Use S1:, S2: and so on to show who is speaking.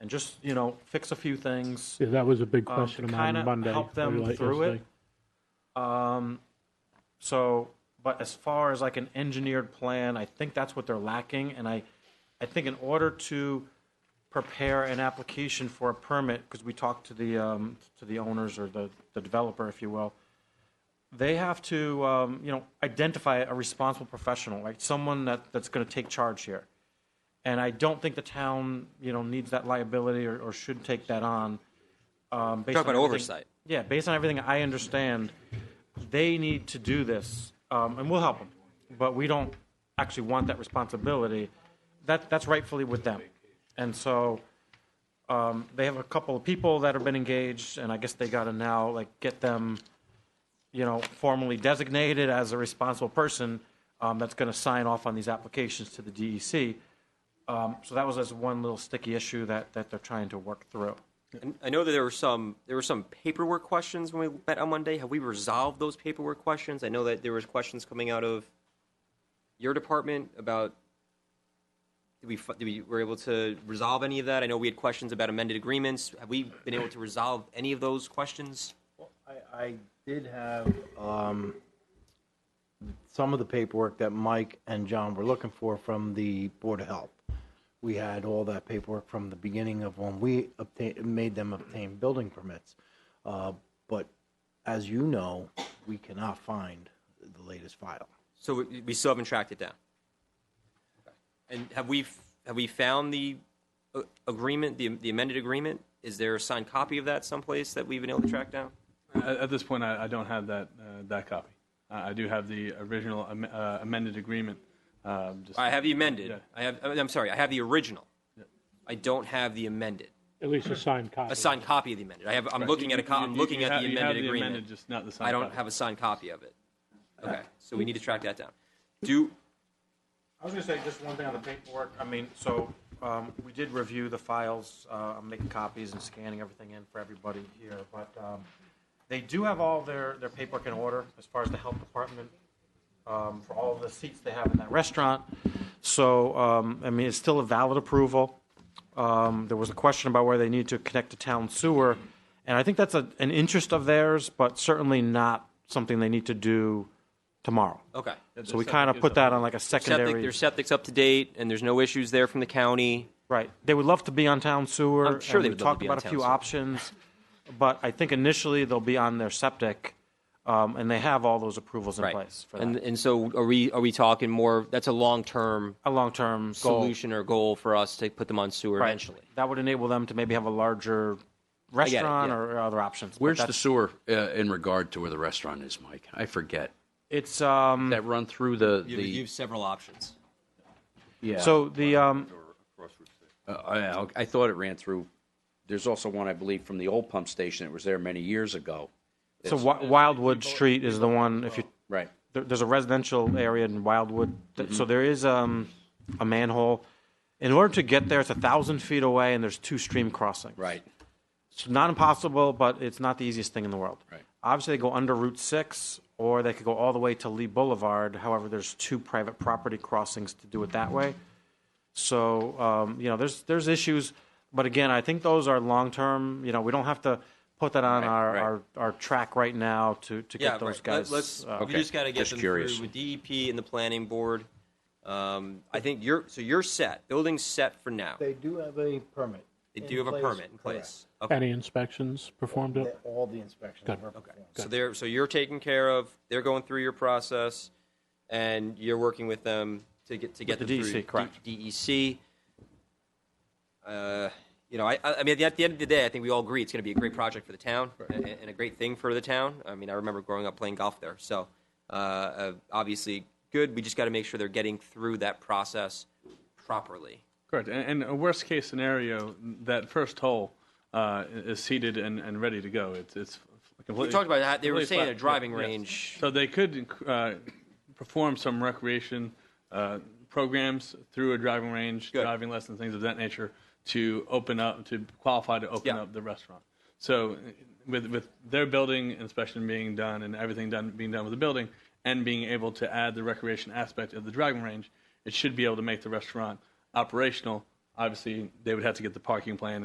S1: and just, you know, fix a few things.
S2: Yeah, that was a big
S1: um,
S2: question
S1: to
S2: of mine
S1: kinda
S2: on Monday.
S1: help
S2: or
S1: them
S2: late
S1: through
S2: yesterday.
S1: it. Um, so, but as far as like an engineered plan, I think that's what they're lacking. And I, I think in order to prepare an application for a permit, because we talked to the, um, to the owners or the, the developer, if you will, they have to, um, you know, identify a responsible professional, like someone that, that's going to take charge here. And I don't think the town, you know, needs that liability or, or should take that on. Um, based
S3: Talk
S1: on
S3: about
S1: everything-
S3: oversight.
S1: Yeah, based on everything I understand, they need to do this, um, and we'll help them. But we don't actually want that responsibility. That that's rightfully with them, and so um, they have a couple of people that have been engaged, and I guess they got to now like get them, you know, formally designated as a responsible person um, that's going to sign off on these applications to the E DEC. Um, so that was as one little sticky issue that that they're trying to work through.
S3: And I know that there were some there were some paperwork questions when we met on Monday. Have we resolved those paperwork questions? I know that there was questions coming out of your department about did we fi- did we were able to resolve any of that? I know we had questions about amended agreements. Have we been able to resolve any of those questions?
S4: I, I did have um, some of the paperwork that Mike and John were looking for from the Board of Health. We had all that paperwork from the beginning of when we obtained, made them obtain building permits. Uh, But as you know, we cannot find the latest file.
S3: So we, we still haven't tracked it down. And have we f- have we found the uh, agreement, the, the amended agreement? Is there a signed copy of that someplace that we've been able to track down?
S5: At, at this point, I, I don't have that, uh, that copy. I, I do have the original am- uh, amended agreement. Um, just,
S3: I have the amended.
S5: Yeah.
S3: I have. I'm sorry. I have the original. I don't have the amended.
S2: At least a signed copy.
S3: A signed copy of the amended. I have. I'm looking at a. Co-
S5: You-
S3: I'm
S5: you-
S3: looking
S5: you
S3: at
S5: have-
S3: the
S5: you have
S3: amended
S5: the
S3: agreement.
S5: amended, just not the signed
S3: I don't
S5: copy.
S3: have a signed copy of it. Okay, so we need to track that down. Do
S1: I was gonna say just one thing on the paperwork. I mean, so, um, we did review the files. Uh, I'm making copies and scanning everything in for everybody here, but, um, they do have all their, their paperwork in order as far as the health department, um, for all the seats they have in that restaurant. So, um, I mean, it's still a valid approval. Um, there was a question about where they need to connect to town sewer, and I think that's a, an interest of theirs, but certainly not something they need to do tomorrow.
S3: okay.
S1: So we kind of put that on like a secondary.
S3: Septic, their septic's up to date, and there's no issues there from the county.
S1: Right. They would love to be on town sewer.
S3: I'm sure
S1: and
S3: they
S1: we
S3: would love to
S1: talked
S3: be on
S1: about a
S3: town
S1: few
S3: sewer.
S1: options, but I think initially they'll be on their septic, um, and they have all those approvals in place for
S3: And
S1: that.
S3: and so are we? Are we talking more? That's a long term
S1: A long-term goal.
S3: solution or goal for us to put them on sewer
S1: Right.
S3: eventually.
S1: That would enable them to maybe have a larger
S3: it,
S1: restaurant
S3: yeah.
S1: or or other options. but
S6: Where's the
S1: that's-
S6: sewer uh, in regard to where the restaurant is, Mike? I forget.
S1: It's, um,
S6: That run through the, the,
S3: several options.
S6: yeah.
S1: so the, um,
S6: Uh, I, I thought it ran through, there's also one, I believe, from the old pump station that was there many years ago.
S1: so Wi- Wildwood Street is the one, if you,
S6: Right.
S1: there, there's a residential area in Wildwood, th- so there is um, a manhole. In order to get there, it's a thousand feet away, and there's two stream crossings.
S6: Right.
S1: It's not impossible, but it's not the easiest thing in the world.
S6: Right.
S1: Obviously, they go under Route Six, or they could go all the way to Lee Boulevard. However, there's two private property crossings to do it that way. So um, you know, there's there's issues, but again, I think those are long term. You know, we don't have to put that on our,
S6: right.
S1: our our track right now to to
S3: Yeah,
S1: get those
S3: right. Let-
S1: guys.
S3: Let's.
S1: uh,
S3: We
S6: Okay.
S3: just got to get
S6: Just
S3: them
S6: curious.
S3: through with DEP and the planning board. Um, I think you're. So you're set. Building's set for now. They,
S4: They do have a permit. in
S3: do have a
S4: place,
S3: permit in
S4: correct.
S3: place. Okay.
S2: Any inspections performed
S4: They-
S2: it?
S4: All the inspections
S2: Good.
S4: were
S3: Okay.
S4: performed.
S3: So they're. So you're taken care of. They're going through your process, and you're working with them to get to get
S1: With the
S3: them
S1: DEC,
S3: through
S1: correct.
S3: D- DEC. Uh, you know, I, I I mean, at the end of the day, I think we all agree it's going to be a great project for the town and, and a great thing for the town. I mean, I remember growing up playing golf there, so uh, uh, obviously good. We just got to make sure they're getting through that process properly.
S5: Correct. And, and a worst case scenario, that first hole uh, is seated and, and ready to go. It's, it's completely.
S3: We talked about that. They were
S5: completely
S3: saying
S5: flat.
S3: a driving
S5: Yeah, yes.
S3: range.
S5: So they could uh, perform some recreation uh, programs through a driving range,
S3: Good.
S5: driving lessons, things of that nature, to open up, to qualify to open
S3: Yeah.
S5: up the restaurant. So, uh, with with their building inspection being done and everything done being done with the building, and being able to add the recreation aspect of the driving range, it should be able to make the restaurant operational. Obviously, they would have to get the parking plan